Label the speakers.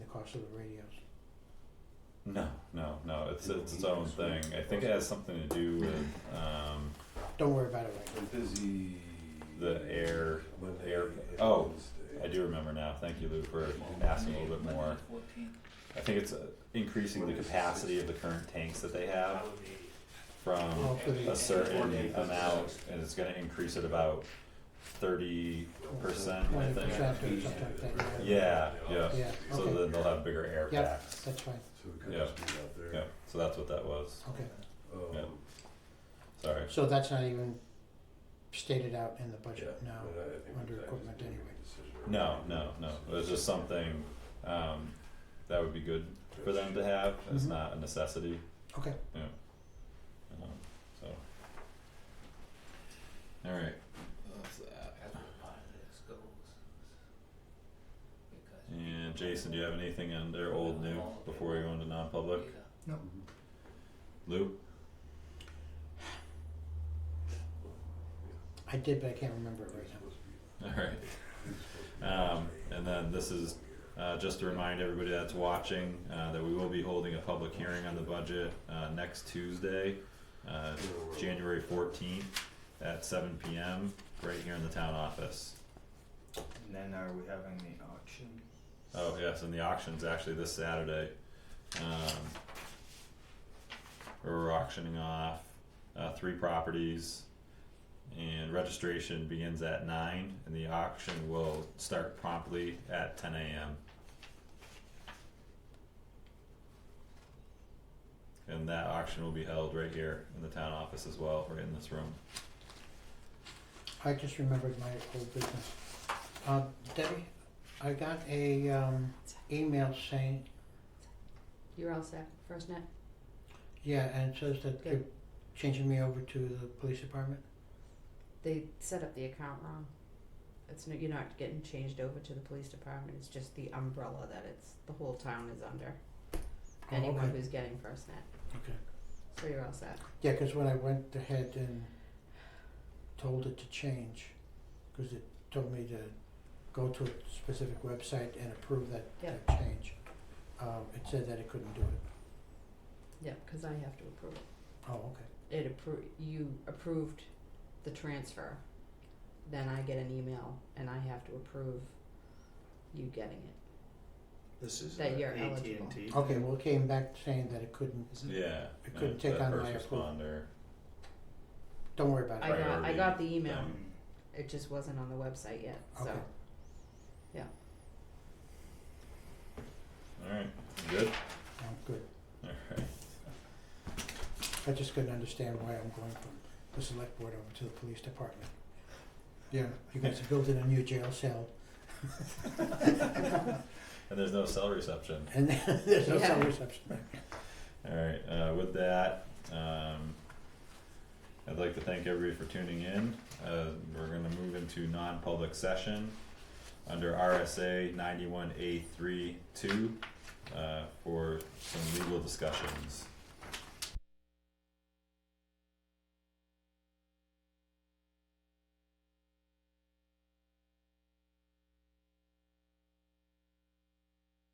Speaker 1: cost of the radios.
Speaker 2: No, no, no, it's it's its own thing, I think it has something to do with, um,
Speaker 1: Don't worry about it right
Speaker 3: I'm busy.
Speaker 2: The air-
Speaker 3: Monday
Speaker 2: air-
Speaker 3: and
Speaker 2: oh,
Speaker 3: Wednesday.
Speaker 2: I do remember now, thank you Lou for asking a little bit more. I think it's uh, increasing the capacity of the current tanks that they have
Speaker 1: now,
Speaker 2: from
Speaker 1: for the
Speaker 2: a certain amount, and it's gonna increase it about thirty percent, I
Speaker 1: twenty
Speaker 2: think.
Speaker 1: percent or something like that.
Speaker 2: Yeah, yeah,
Speaker 1: Yeah,
Speaker 2: so
Speaker 1: okay.
Speaker 2: then they'll have bigger air
Speaker 1: Yep.
Speaker 2: packs,
Speaker 1: That's fine,
Speaker 3: So it could
Speaker 2: Yeah.
Speaker 3: just be out there.
Speaker 2: yeah, so that's what that was,
Speaker 1: okay,
Speaker 3: Um,
Speaker 2: sorry,
Speaker 1: so that's not even stated out in the budget,
Speaker 3: yeah,
Speaker 1: no,
Speaker 3: but I- I think
Speaker 1: under
Speaker 3: that
Speaker 1: equipment
Speaker 3: is a
Speaker 1: anyway.
Speaker 3: decision.
Speaker 2: No, no, no, it was just something, um, that would be good for them to have, it's
Speaker 1: Mhm.
Speaker 2: not a necessity,
Speaker 1: okay,
Speaker 2: um, so. Alright, that's that. And Jason, do you have anything under old new before we go into non-public?
Speaker 3: Mhm.
Speaker 2: Lou?
Speaker 1: I did, but I can't remember it right now.
Speaker 2: Alright, um, and then this is, uh, just to remind everybody that's watching, uh, that we will be holding a public hearing on the budget, uh, next Tuesday, uh, January fourteenth at seven P M, right here in the town office.
Speaker 4: And then are we having the auction?
Speaker 2: Oh, yes, and the auction's actually this Saturday. Um, we're auctioning off uh, three properties, and registration begins at 9, and the auction will start promptly at 10 a.m. And that auction will be held right here in the town office as well, right in this room.
Speaker 1: I just remembered my old business. Uh, Debbie, I got a, um, email saying,
Speaker 5: You're all set, first net?
Speaker 1: yeah, and it says that they're
Speaker 5: Good.
Speaker 1: changing me over to the police department.
Speaker 5: They set up the account wrong. It's, no- you're not getting changed over to the police department, it's just the umbrella that it's, the whole town is under.
Speaker 1: Oh,
Speaker 5: Anyone
Speaker 1: okay.
Speaker 5: who's getting first net,
Speaker 1: Okay.
Speaker 5: so you're all set.
Speaker 1: Yeah, 'cause when I went ahead and told it to change, 'cause it told me to go to a specific website and approve that,
Speaker 5: Yeah.
Speaker 1: that change. Um, it said that it couldn't do it.
Speaker 5: Yeah, cause I have to approve it.
Speaker 1: Oh, okay.
Speaker 5: It appro- you approved the transfer, then I get an email and I have to approve you getting it.
Speaker 4: This is
Speaker 5: That
Speaker 4: at
Speaker 5: you're
Speaker 4: AT&T.
Speaker 5: eligible.
Speaker 1: Okay, well, it came back saying that it couldn't,
Speaker 2: Yeah.
Speaker 1: Mm-hmm. It couldn't
Speaker 2: and
Speaker 1: take
Speaker 2: that
Speaker 1: on my
Speaker 2: first
Speaker 1: approval.
Speaker 2: responder.
Speaker 1: don't worry about
Speaker 5: I
Speaker 1: it.
Speaker 5: got, I
Speaker 2: Priority
Speaker 5: got the email,
Speaker 2: thing.
Speaker 4: Um,
Speaker 5: it just wasn't on the website yet, so.
Speaker 1: Okay.
Speaker 2: All right, good.
Speaker 1: I'm good.
Speaker 2: All right.
Speaker 1: I just couldn't understand why I'm going from the select board over to the police department. Yeah, you guys are building a new jail cell
Speaker 2: And there's no cell reception.
Speaker 1: and there's no cell
Speaker 5: Yeah.
Speaker 1: reception.
Speaker 2: Alright, uh, with that, um, I'd like to thank everybody for tuning in. Uh, we're gonna move into non-public session under RSA ninety-one A three two, uh, for some legal discussions.